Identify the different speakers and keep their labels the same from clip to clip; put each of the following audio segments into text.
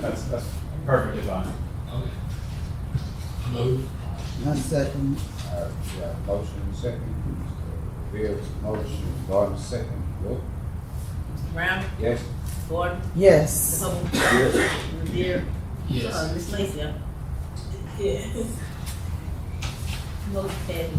Speaker 1: That's, that's perfectly fine.
Speaker 2: Okay. Move.
Speaker 3: I second,
Speaker 4: All right, we got a uh, motion second, Bill's motion, Gordon second, vote,
Speaker 5: Brown,
Speaker 4: yes?
Speaker 5: Gordon,
Speaker 3: yes.
Speaker 5: Hope,
Speaker 4: Yes.
Speaker 5: Revere, uh,
Speaker 2: Yes.
Speaker 5: Miss Lacy. uh, Yes. Most dead.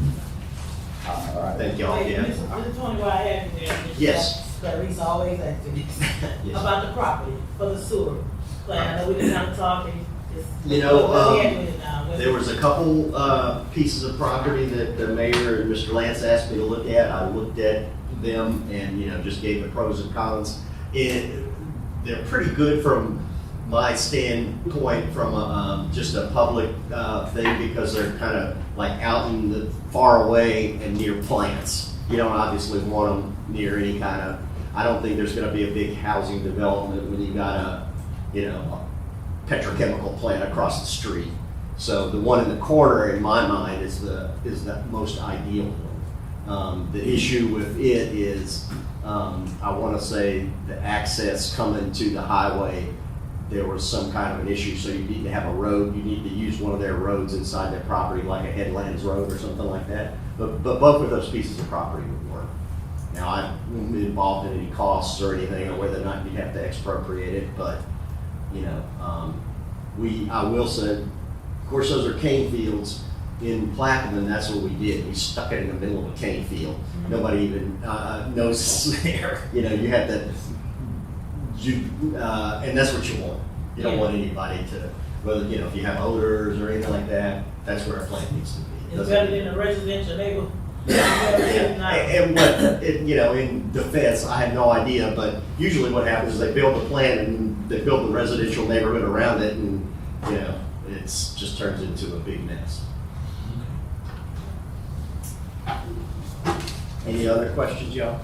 Speaker 4: All right.
Speaker 6: Thank y'all,
Speaker 7: Wait,
Speaker 6: yeah.
Speaker 7: Mr. Mr. Tony, while I have you there, Mr.
Speaker 6: Yes.
Speaker 7: That he's always asking me
Speaker 6: Yes.
Speaker 7: about the property for the sewer. Plan, I know we didn't have talking, just.
Speaker 6: You know,
Speaker 7: Where we at
Speaker 6: um,
Speaker 7: with it now? Where-
Speaker 6: There was a couple, uh, pieces of property that the mayor and Mr. Lance asked me to look at. I looked at them and, you know, just gave the pros and cons. It, they're pretty good from my standpoint, from a, um, just a public, uh, thing, because they're kind of like out in the far away and near plants. You don't obviously want them near any kind of, I don't think there's gonna be a big housing development when you got a, you know, a petrochemical plant across the street. So the one in the corner, in my mind, is the, is the most ideal one. Um, the issue with it is, um, I wanna say the access coming to the highway, there was some kind of an issue, so you need to have a road, you need to use one of their roads inside their property, like a headlands road or something like that. But, but both of those pieces of property would work. Now, I wouldn't be involved in any costs or anything, or whether or not you'd have to expropriate it, but, you know, um, we, I will say, of course, those are cane fields. In Plaquemine, that's what we did. We stuck it in the middle of a cane field. Nobody even uh, notices there. You know, you have to, you, uh, and that's what you want. You don't want anybody to, whether, you know, if you have odors or anything like that, that's where a plant needs to be. It
Speaker 7: It's
Speaker 6: doesn't-
Speaker 7: better than a residential neighbor.
Speaker 6: yeah, and and what, it- you know, in defense, I had no idea, but usually what happens is they build a plan and they build the residential neighborhood around it and, you know, it's, just turns into a big mess. Any other questions, y'all?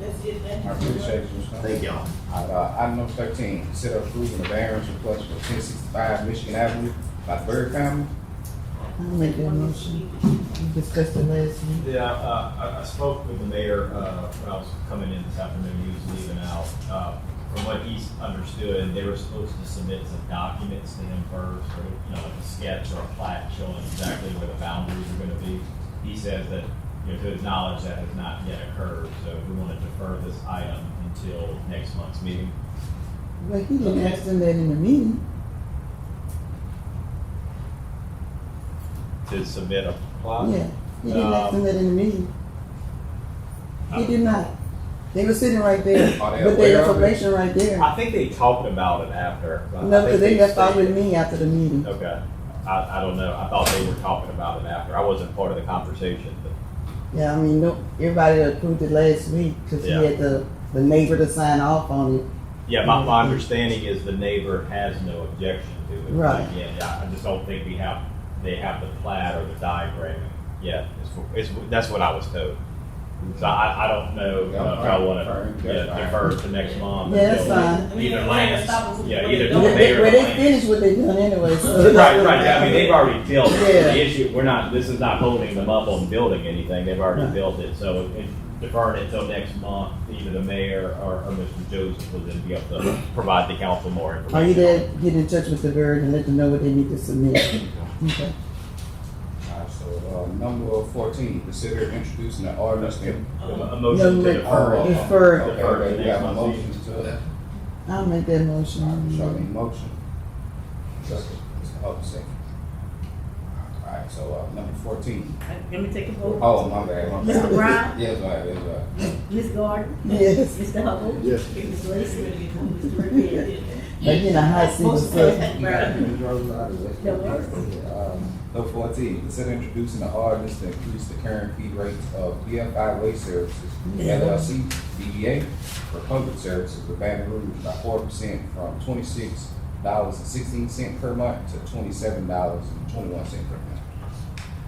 Speaker 7: That's it, thank you.
Speaker 4: I appreciate you, Mr. Hunt.
Speaker 6: Thank y'all.
Speaker 4: All right, item number thirteen, consider approving the variance request for ten sixty-five Michigan Avenue by Bird Family.
Speaker 3: I'll make that motion. We discussed it last week.
Speaker 1: Yeah, uh, I, I spoke with the mayor, uh, when I was coming in this afternoon, he was leaving out. Uh, From what he's understood, they were supposed to submit some documents to him first, or, you know, like a sketch or a plat showing exactly where the boundaries are gonna be. He says that, you know, to his knowledge, that has not yet occurred, so we wanna defer this item until next month's meeting.
Speaker 3: Well, he didn't ask them that in the meeting.
Speaker 1: To submit a plot?
Speaker 3: Yeah, he didn't ask them that in the meeting. He did not. They were sitting right there,
Speaker 4: Are they
Speaker 3: with
Speaker 4: aware
Speaker 3: their
Speaker 4: of it?
Speaker 3: information right there.
Speaker 1: I think they talked about it after. but I
Speaker 3: No,
Speaker 1: think
Speaker 3: because they left out
Speaker 1: stated-
Speaker 3: with me after the meeting.
Speaker 1: Okay, I, I don't know, I thought they were talking about it after, I wasn't part of the conversation, but,
Speaker 3: Yeah, I mean, no, everybody approved it last week, cause he
Speaker 1: Yeah.
Speaker 3: had the, the neighbor to sign off on it.
Speaker 1: yeah, my, my understanding is the neighbor has no objection to it.
Speaker 3: Right.
Speaker 1: Again, I I just don't think we have, they have the plat or the diagram yet, it's, it's, that's what I was told. So I, I don't know, uh, if I wanna, yeah, defer to next month.
Speaker 3: Yeah, that's
Speaker 1: until-
Speaker 3: fine.
Speaker 7: Uh, I mean,
Speaker 1: Either
Speaker 7: I'm
Speaker 1: Lance,
Speaker 7: stop them.
Speaker 1: yeah, either
Speaker 7: Don't-
Speaker 1: the
Speaker 3: Well, they,
Speaker 1: mayor
Speaker 3: well,
Speaker 1: or
Speaker 3: they
Speaker 1: Lance.
Speaker 3: finished what they done anyway, so. it's
Speaker 1: Right,
Speaker 3: really-
Speaker 1: right, I mean, they've already built, it.
Speaker 3: Yeah.
Speaker 1: the issue, we're not, this is not holding them up on building anything, they've already
Speaker 3: Right.
Speaker 1: built it, so if- if deferring it till next month, either the mayor or, or Mr. Joseph will then be able to provide the council more
Speaker 3: Are
Speaker 1: information.
Speaker 3: you there, get in touch with the bird and let them know what they need to submit? Okay.
Speaker 4: All right, so, uh, number fourteen, consider introducing an ordinance. to-
Speaker 1: A a
Speaker 3: No,
Speaker 1: motion to
Speaker 3: wait.
Speaker 1: defer. it.
Speaker 3: Defer.
Speaker 4: Okay, we have a motion to that.
Speaker 3: I'll make
Speaker 4: Show
Speaker 3: that
Speaker 4: me
Speaker 3: motion.
Speaker 4: motion. Second. Oh, second. All right, so, uh, number fourteen.
Speaker 5: Let me take a vote.
Speaker 4: Oh, my bad. my bad.
Speaker 5: Mr. Brown?
Speaker 4: Yes, right, yes, right.
Speaker 5: Ms. Gordon?
Speaker 3: Yes.
Speaker 5: Mr. Hubble?
Speaker 6: Yes.
Speaker 5: Ms. Lacy? Mr. Revere?
Speaker 3: But you know how it seems, so,
Speaker 5: Brown, No worries.
Speaker 4: um, Number fourteen, consider introducing an ordinance to increase the current fee rate of BFI Waste Services, LLC, DBA, for public services for Baton Rouge by four percent from twenty-six dollars and sixteen cent per month to twenty-seven dollars and twenty-one cent per month.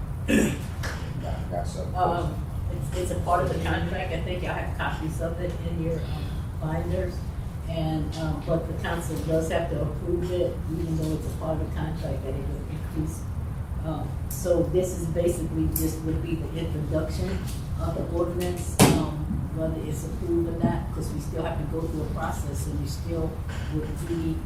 Speaker 4: Got- Got some.
Speaker 5: Um, it's, it's a part of the contract, I think y'all have copies of it in your um, binders. And, um, but the council does have to approve it, even though it's a part of the contract that it will increase. Um, so this is basically, this would be the introduction of the ordinance, um, whether it's approved or not, because we still have to go through a process and we still would be